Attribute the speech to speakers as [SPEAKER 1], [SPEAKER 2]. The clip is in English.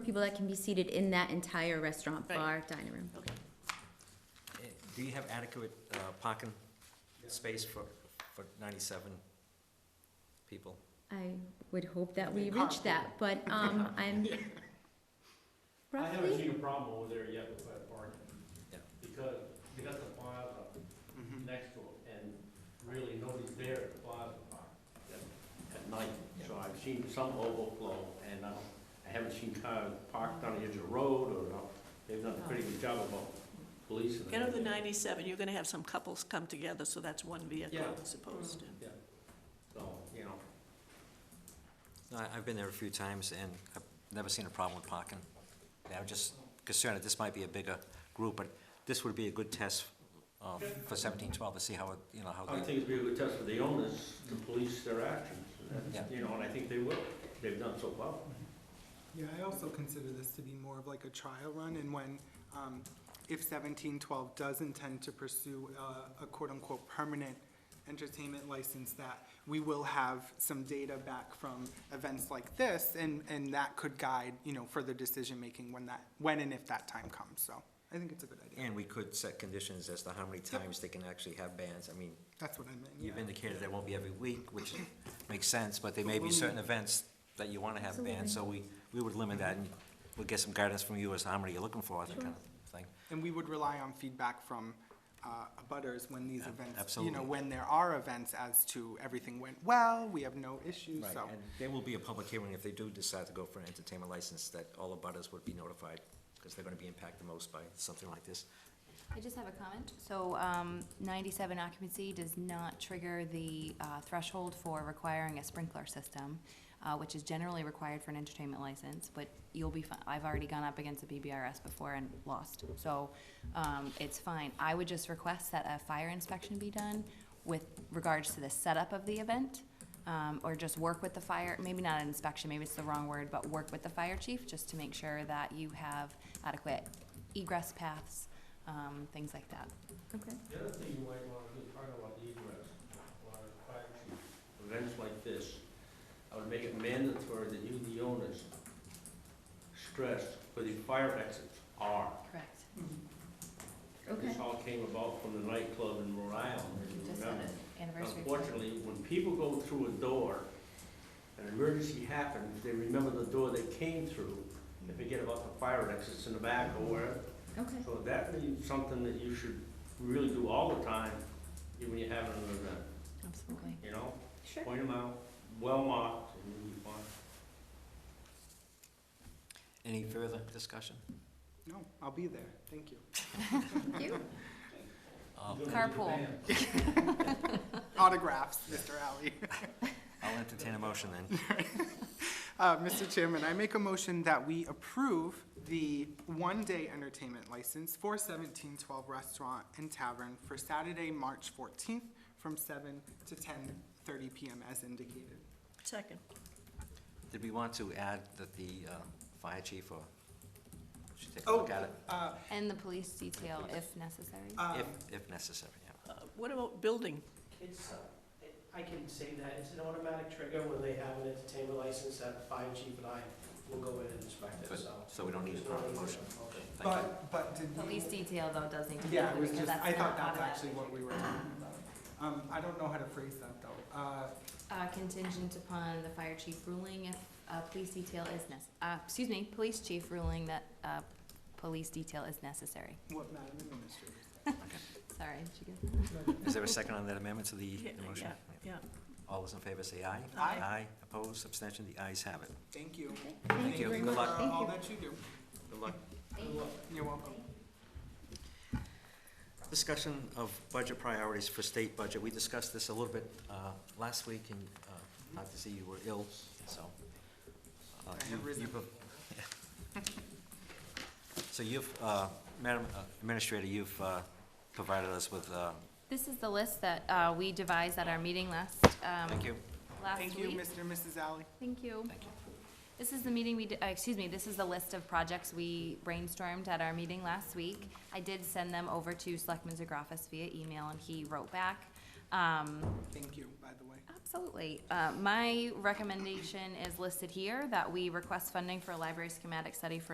[SPEAKER 1] people that can be seated in that entire restaurant,
[SPEAKER 2] Right.
[SPEAKER 1] bar, dining room.
[SPEAKER 2] Okay.
[SPEAKER 3] Eh, Do you have adequate uh, parking space for, for ninety-seven people?
[SPEAKER 1] I would hope that we
[SPEAKER 4] They
[SPEAKER 1] reach
[SPEAKER 4] carpool.
[SPEAKER 1] that, but, um, I'm
[SPEAKER 5] I haven't
[SPEAKER 1] roughly,
[SPEAKER 5] seen a problem over there yet with that parking.
[SPEAKER 3] Yeah.
[SPEAKER 5] Because they got the plaza
[SPEAKER 4] Mhm.
[SPEAKER 5] next to it, and really nobody's there at the plaza park at- at night. So I've seen some overflow, and I, I haven't seen cars parked on the edge of the road, or, not. they've done a pretty good job about policing. it.
[SPEAKER 2] Out of the 97, you're going to have some couples come together, so that's one vehicle
[SPEAKER 5] Yeah.
[SPEAKER 2] as opposed to.
[SPEAKER 5] So, you know,
[SPEAKER 3] No, I- I've been there a few times and I've never seen a problem with parking. Yeah, I'm just concerned that this might be a bigger group, but this would be a good test uh, for seventeen twelve to see how, it you know, how
[SPEAKER 5] I
[SPEAKER 3] they,
[SPEAKER 5] think it'd be a good test for the owners to police their actions, and that's-
[SPEAKER 3] Yeah.
[SPEAKER 5] you know, and I think they will, they've done so well.
[SPEAKER 4] Yeah, I also consider this to be more of like a trial run, and when, um, if seventeen twelve does intend to pursue a, a quote-unquote permanent entertainment license, that we will have some data back from events like this, and, and that could guide, you know, further decision-making when that, when and if that time comes, so I think it's a good idea.
[SPEAKER 3] and we could set conditions as to how many times they can actually have bands. I mean,
[SPEAKER 4] That's what I meant, yeah.
[SPEAKER 3] you've indicated that won't be every week, which makes sense, but there may be certain events that you want to have bands, so we, we would limit that and we'll get some guidance from you as to how many you're looking for, that kind of thing.
[SPEAKER 4] And we would rely on feedback from uh, abutters when these events, you
[SPEAKER 3] absolutely.
[SPEAKER 4] know, when there are events as to everything went well, we have no issues,
[SPEAKER 3] Right,
[SPEAKER 4] so.
[SPEAKER 3] and there will be a public hearing if they do decide to go for an entertainment license, that all the butters would be notified, because they're gonna be impacted the most by something like this.
[SPEAKER 6] I just have a comment. So, um, ninety-seven occupancy does not trigger the, uh, threshold for requiring a sprinkler system, uh, which is generally required for an entertainment license, but you'll be fine. I've already gone up against a BBRS before and lost, so, um, it's fine. I would just request that a fire inspection be done with regards to the setup of the event, um, or just work with the fire, maybe not an inspection, maybe it's the wrong word, but work with the fire chief just to make sure that you have adequate egress paths, um, things like that.
[SPEAKER 1] okay.
[SPEAKER 5] The other thing you might want to do, talk about egress, or fire chief, events like this, I would make it mandatory that you, the owners, stress where the fire exits are.
[SPEAKER 6] Correct.
[SPEAKER 4] Mm-hmm.
[SPEAKER 5] This all came about from the nightclub in Rhode Island, if you
[SPEAKER 6] Just
[SPEAKER 5] remember.
[SPEAKER 6] an anniversary.
[SPEAKER 5] Unfortunately, when people go through a door, an emergency happens, they remember the door they came through, they forget about the fire exits in the back or wherever.
[SPEAKER 1] Okay.
[SPEAKER 5] So that is something that you should really do all the time, even when you're having an event,
[SPEAKER 6] Absolutely.
[SPEAKER 5] you know?
[SPEAKER 1] Sure.
[SPEAKER 5] Point them out, well marked, and you'll be fine.
[SPEAKER 3] Any further discussion?
[SPEAKER 4] No, I'll be there, thank you.
[SPEAKER 1] Thank you.
[SPEAKER 3] Uh,
[SPEAKER 6] Carpool.
[SPEAKER 4] Autographs, Mr. Alley.
[SPEAKER 3] I'll entertain a motion then.
[SPEAKER 4] Uh, Mr. Chairman, I make a motion that we approve the one-day entertainment license for seventeen twelve Restaurant and Tavern for Saturday, March fourteenth, from seven to ten thirty PM as indicated.
[SPEAKER 2] Second.
[SPEAKER 3] Did we want to add that the, uh, fire chief or, should take a
[SPEAKER 4] Oh,
[SPEAKER 3] look at it,
[SPEAKER 4] uh,
[SPEAKER 6] And the police detail if necessary.
[SPEAKER 4] um,
[SPEAKER 3] if, if necessary, yeah.
[SPEAKER 2] Uh, What about building?
[SPEAKER 7] It's, uh, I can say that, it's an automatic trigger when they have an entertainment license that fire chief and I will go in and inspect it,
[SPEAKER 3] But-
[SPEAKER 7] so.
[SPEAKER 3] So we don't need a
[SPEAKER 7] there's no
[SPEAKER 3] proper
[SPEAKER 7] need for
[SPEAKER 3] motion.
[SPEAKER 7] a motion.
[SPEAKER 3] Thank you.
[SPEAKER 4] But, but did we?
[SPEAKER 6] Police detail though does need to be.
[SPEAKER 4] Yeah, it was
[SPEAKER 6] because
[SPEAKER 4] just, I thought
[SPEAKER 6] not
[SPEAKER 4] that's
[SPEAKER 6] automatic.
[SPEAKER 4] actually what we were talking about. Um, I don't know how to phrase that though. Uh,
[SPEAKER 6] Uh, contingent upon the fire chief ruling if, uh, police detail is necess, uh, excuse me, police chief ruling that, uh, police detail is necessary.
[SPEAKER 4] what, Madam Administrator?
[SPEAKER 6] Sorry, did you get
[SPEAKER 3] Is there a second on that amendment to the
[SPEAKER 2] Yeah,
[SPEAKER 3] the motion?
[SPEAKER 2] yeah, yeah.
[SPEAKER 3] All those in favor say aye.
[SPEAKER 4] Aye.
[SPEAKER 3] Aye, opposed, abstention, the ayes have it.
[SPEAKER 4] Thank you.
[SPEAKER 1] Okay.
[SPEAKER 3] Thank you.
[SPEAKER 1] very
[SPEAKER 3] Good
[SPEAKER 1] much.
[SPEAKER 3] luck.
[SPEAKER 4] For
[SPEAKER 1] Thank
[SPEAKER 4] all
[SPEAKER 1] you.
[SPEAKER 4] that you do.
[SPEAKER 3] Good luck.
[SPEAKER 4] You're welcome.
[SPEAKER 3] Discussion of budget priorities for state budget. We discussed this a little bit uh, last week, and uh, not to see you were ill, so. uh,
[SPEAKER 4] I
[SPEAKER 3] you-
[SPEAKER 4] have risen.
[SPEAKER 3] you pro- So you've, uh, Madam Administrator, you've uh, provided us with, uh,
[SPEAKER 6] This is the list that, uh, we devised at our meeting last, um,
[SPEAKER 3] thank you.
[SPEAKER 6] last week.
[SPEAKER 4] Thank you, Mr. and Mrs. Alley.
[SPEAKER 6] Thank you.
[SPEAKER 3] Thank you.
[SPEAKER 6] This is the meeting we, d- uh, excuse me, this is the list of projects we brainstormed at our meeting last week. I did send them over to Selectman Zagrafis via email, and he wrote back. Um,
[SPEAKER 4] Thank you, by the way.
[SPEAKER 6] Absolutely. Uh, My recommendation is listed here, that we request funding for a library schematic study for